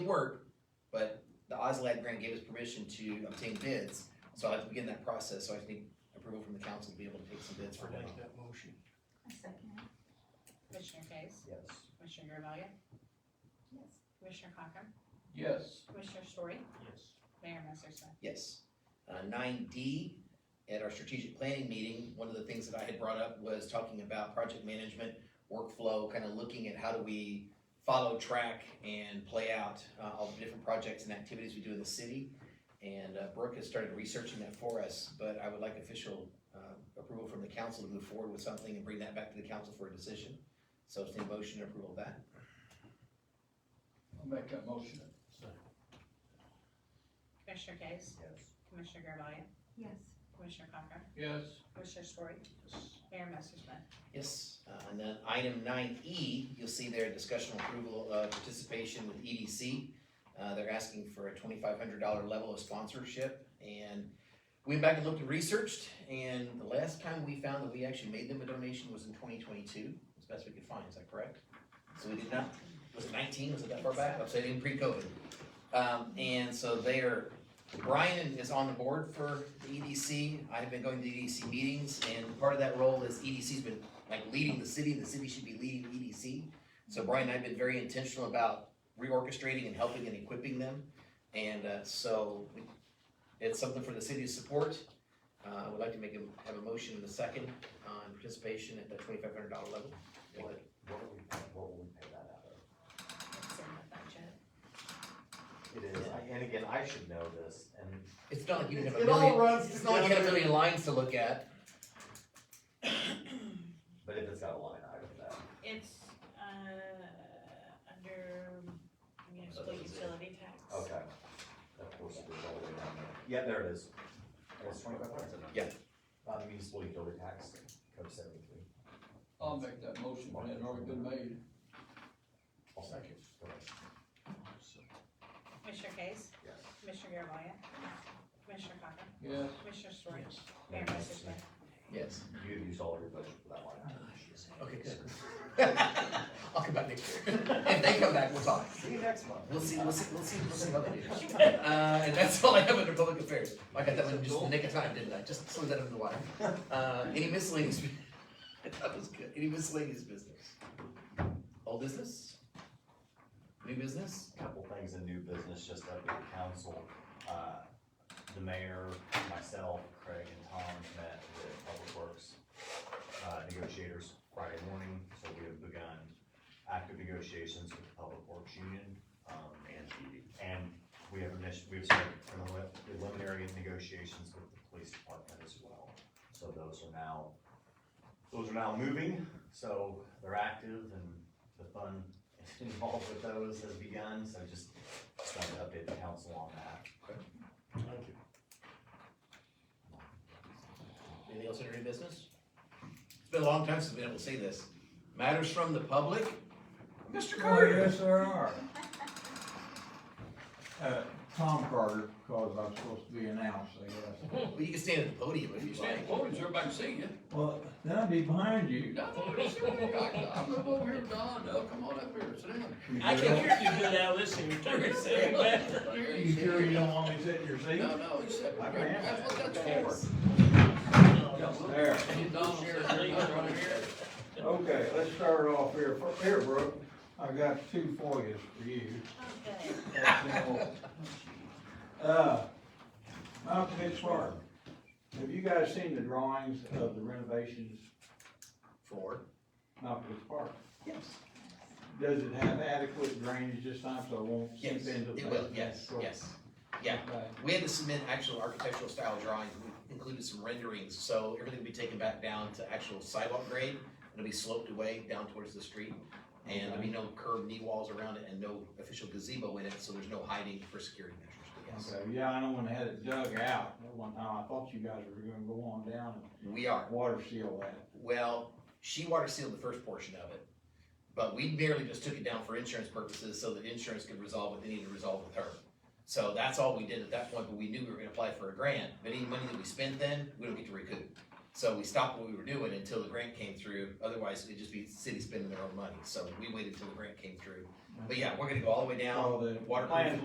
work, but the OSLAD grant gave us permission to obtain bids, so I have to begin that process, so I need approval from the council to be able to take some bids for I'll now. make that motion. I second it. Commissioner Case? Yes. Commissioner Garvelia? Yes. Commissioner Cochran? Yes. Commissioner Story? Yes. Mayor Messersohn? Yes. Uh, nine D, at our strategic planning meeting, one of the things that I had brought up was talking about project management, workflow, kind of looking at how do we follow track and play out, uh, all the different projects and activities we do in the city. And, uh, Brooke has started researching that for us, but I would like official, uh, approval from the council to move forward with something and bring that back to the council for a decision. So it's the motion and approval of that. I'll make that motion. Commissioner Case? Yes. Commissioner Garvelia? Yes. Commissioner Cochran? Yes. Commissioner Story? Yes. Mayor Messersohn? Yes, uh, and then item nine E, you'll see there, discussion approval of uh, participation with EDC. Uh, they're asking for a twenty-five hundred dollar level of sponsorship, and we went back and looked and researched, and the last time we found that we actually made them a donation was in twenty twenty-two, as best we could find, is that correct? So we did not, was it nineteen, was it that far back? I'm saying pre-COVID. Um, and so they're, Brian is on the board for the EDC, I've been going to EDC meetings, and part of that role is EDC's been like leading the city, the city should be leading EDC. So Brian and I have been very intentional about reorchestrating and helping and equipping them. And uh, so we- it's something for the city to support. Uh, I would like to make a, have a motion in a second on participation at the twenty-five hundred dollar level. What, what do we, what will we pay that out of? It's in the budget. It is, I- and again, I should know this, and It's not like you didn't have a It all million, runs it's not like you had a together. million lines to look at. But if it's got a line item that, It's, uh, under municipal that's it. utility tax. okay. Of course, it is all the way down there. Yeah, there it is. It's twenty-five hundred. Yeah. Uh, the municipal utility tax, code seventy-three. I'll make that motion, and it's already been made. I'll second. Go ahead. Commissioner Case? Yes. Commissioner Garvelia? Commissioner Cochran? Yes. Commissioner Story? Mayor Mayor Massersohn, Messersohn? Yes. You used all of your budget for that line item. Okay, good. I'll come back next year. If they come back, we'll talk. See you next month. We'll see, we'll see, we'll see, we'll see what they do. Uh, and that's all I have under public affairs. I got that one just in the nick of time, didn't I? Just slid that under the wire. Uh, any miscellaneous, bu- that was good. Any miscellaneous business? Old business? New business? couple things in new business, just up at the council. Uh, The mayor, myself, Craig and Tom met with Public Works uh, negotiators Friday morning, so we have begun active negotiations with the Public Works Union. um, And, and we have initial, we've started prelim- preliminary negotiations with the police department as well. So those are now, those are now moving, so they're active and the fun involved with those has begun, so just trying to update the council on that. Anything else under new business? It's been a long time since I've been able to say this. Matters from the public? Mr. Carter? Oh, Yes, there are. Uh, Tom Carter, because I'm supposed to be announced, I guess. Well, you can stand at the podium if You you'd stand like. forward, everybody can see you. Well, then I'll be behind you. No, no, no, sir, I- I move over here, Don, no, come on up here, sit down. I can hear you good now, listen, you're talking so fast. You sure you don't want me sitting in your seat? No, no, he said, I can have that's what that's for. There. And Don said, "Don, right here." Okay, let's start off here. Fir- Here, Brooke, I've got two FOIAs for you. Okay. Uh, Mount Pitts Farm, have you guys seen the drawings of the renovations Four. Mount Pitts Park? Yes. Does it have adequate drainage this time, so it won't seep Yes, into the? it will, yes, yes. Yeah, Okay. We had to submit actual architectural style drawings, we included some renderings, so everything will be taken back down to actual sidewalk grade. It'll be sloped away down towards the street, and there'll be no curved knee walls around it and no official gazebo in it, so there's no hiding for security measures, but yes. Okay, yeah, I know when they had it dug out, at one time, I thought you guys were gonna go on down We are, and water seal that. well, she water sealed the first portion of it, but we merely just took it down for insurance purposes so that insurance could resolve what they needed to resolve with her. So that's all we did at that point, but we knew we were gonna apply for a grant, but any money that we spent then, we don't get to recoup. So we stopped what we were doing until the grant came through, otherwise it'd just be city spending their own money, so we waited until the grant came through. But yeah, we're gonna go all the way down, All the waterproof plans